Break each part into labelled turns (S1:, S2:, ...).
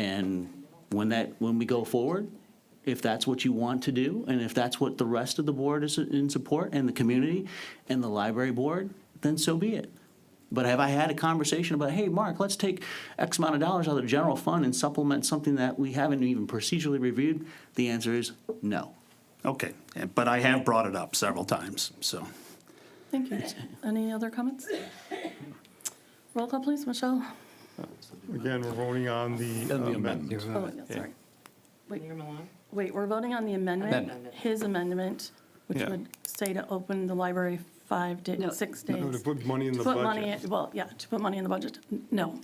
S1: And when that, when we go forward, if that's what you want to do, and if that's what the rest of the board is in support, and the community, and the library board, then so be it. But have I had a conversation about, hey, Mark, let's take X amount of dollars out of the general fund and supplement something that we haven't even procedurally reviewed? The answer is no.
S2: Okay, eh, but I have brought it up several times, so.
S3: Thank you. Any other comments? Roll call, please, Michelle.
S4: Again, we're voting on the uh, amendment.
S3: Oh, yeah, sorry. Wait.
S5: Mayor Milan?
S3: Wait, we're voting on the amendment,
S5: Amendment.
S3: his amendment, which
S2: Yeah.
S3: would say to open the library five
S5: No.
S3: days, six
S4: No, To
S3: days.
S4: put money in
S3: To
S4: the
S3: put money,
S4: budget.
S3: in- well, yeah, to put money in the budget. N- No.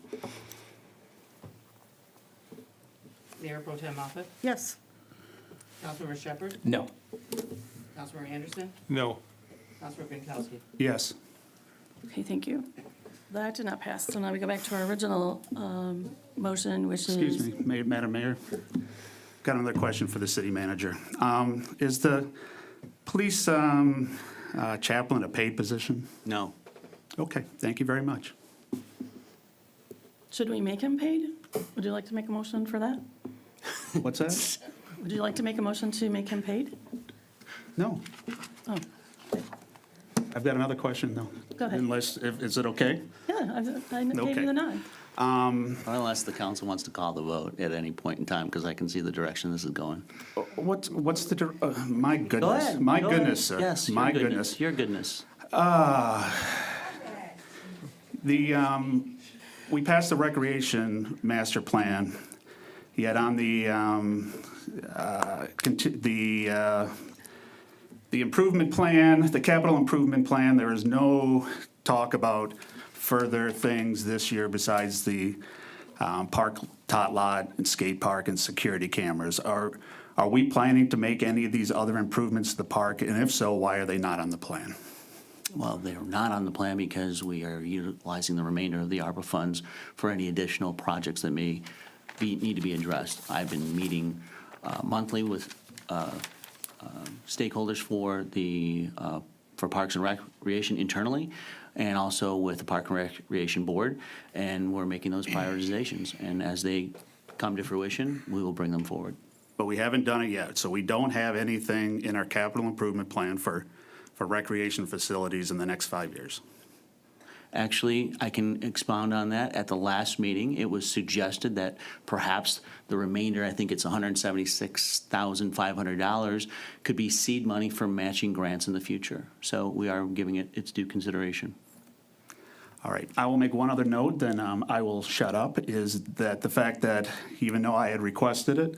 S5: Mayor Pro Tem Moffat?
S3: Yes.
S5: Councilmember Shepherd?
S6: No.
S5: Councilmember Anderson?
S4: No,
S5: Councilmember Binkowski?
S2: Yes,
S3: Okay, thank you. That did not pass, so now we go back to our original um, motion, which is.
S2: excuse me, Ma- Madam Mayor. Got another question for the city manager. Um, Is the police um, uh, chaplain a paid position?
S1: No.
S2: Okay, thank you very much.
S3: Should we make him paid? Would you like to make a motion for that?
S2: What's that?
S3: Would you like to make a motion to make him paid?
S2: No.
S3: Oh.
S2: I've got another question, though.
S3: Go ahead.
S2: Unless, if- is it okay?
S3: Yeah, I I gave
S2: Okay.
S3: you the nod.
S1: Unless the council wants to call the vote at any point in time, because I can see the direction this is going.
S2: Uh, What's, what's the, dir- uh, my goodness, my
S1: Go ahead.
S2: goodness, sir.
S1: Yes, your
S2: My
S1: goodness, your goodness.
S2: The, um, we passed the recreation master plan, yet on the, um, uh, conti- the, uh, the improvement plan, the capital improvement plan, there is no talk about further things this year besides the, um, park, tot lot, and skate park, and security cameras. Are, are we planning to make any of these other improvements to the park? And if so, why are they not on the plan?
S1: Well, they're not on the plan because we are utilizing the remainder of the ARPA funds for any additional projects that may be, need to be addressed. I've been meeting uh, monthly with uh, um, stakeholders for the, uh, for Parks and Recreation internally, and also with the Park and Recreation Board, and we're making those prioritizations. And as they come to fruition, we will bring them forward.
S2: But we haven't done it yet, so we don't have anything in our capital improvement plan for, for recreation facilities in the next five years.
S1: Actually, I can expound on that. At the last meeting, it was suggested that perhaps the remainder, I think it's $176,500, could be seed money for matching grants in the future. So we are giving it its due consideration.
S2: All right, I will make one other note, then um, I will shut up, is that the fact that even though I had requested it,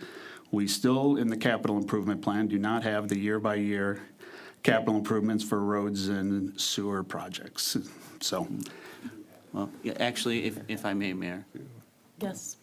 S2: we still, in the capital improvement plan, do not have the year-by-year capital improvements for roads and sewer projects. So,
S1: Well, yeah, actually, if, if I may, Mayor,
S3: Yes.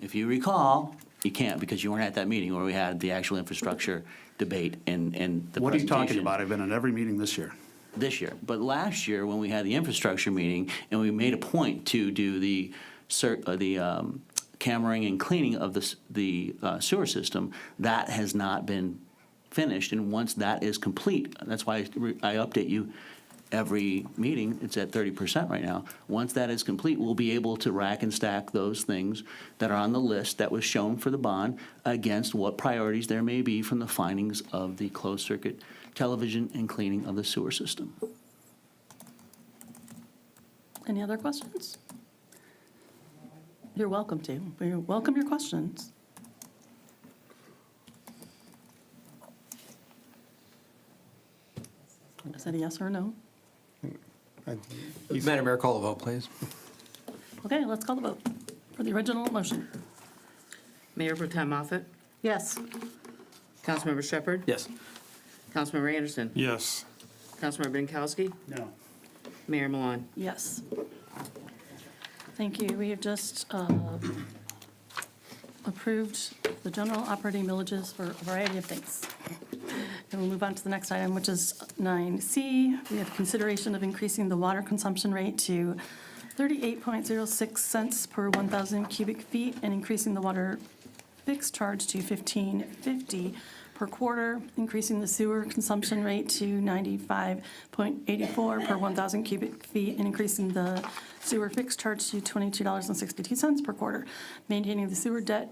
S1: if you recall, you can't because you weren't at that meeting where we had the actual infrastructure debate and, and the
S2: what are you talking
S1: presentation.
S2: about? I've been at every meeting this year.
S1: this year. But last year, when we had the infrastructure meeting and we made a point to do the cer- uh, the um, cammering and cleaning of the s- the uh, sewer system, that has not been finished. And once that is complete, that's why I re- I update you every meeting. It's at thirty percent right now. Once that is complete, we'll be able to rack and stack those things that are on the list that was shown for the bond against what priorities there may be from the findings of the closed circuit television and cleaning of the sewer system.
S3: Any other questions? You're welcome to. We welcome your questions. Is that a yes or a no?
S6: Madam Mayor, call the vote, please.
S3: Okay, let's call the vote for the original motion.
S5: Mayor Pro Tem Moffat?
S3: Yes.
S5: Councilmember Shepherd?
S6: Yes.
S5: Councilmember Anderson?
S4: yes.
S5: Councilmember Binkowski?
S2: No.
S5: Mayor Milan?
S3: Yes. Thank you. We have just uh, approved the general operating millages for a variety of things. And we'll move on to the next item, which is 9C. We have consideration of increasing the water consumption rate to 38.06 cents per 1,000 cubic feet and increasing the water fixed charge to 15.50 per quarter, increasing the sewer consumption rate to 95.84 per 1,000 cubic feet, and increasing the sewer fixed charge to $22.62 per quarter, maintaining the sewer debt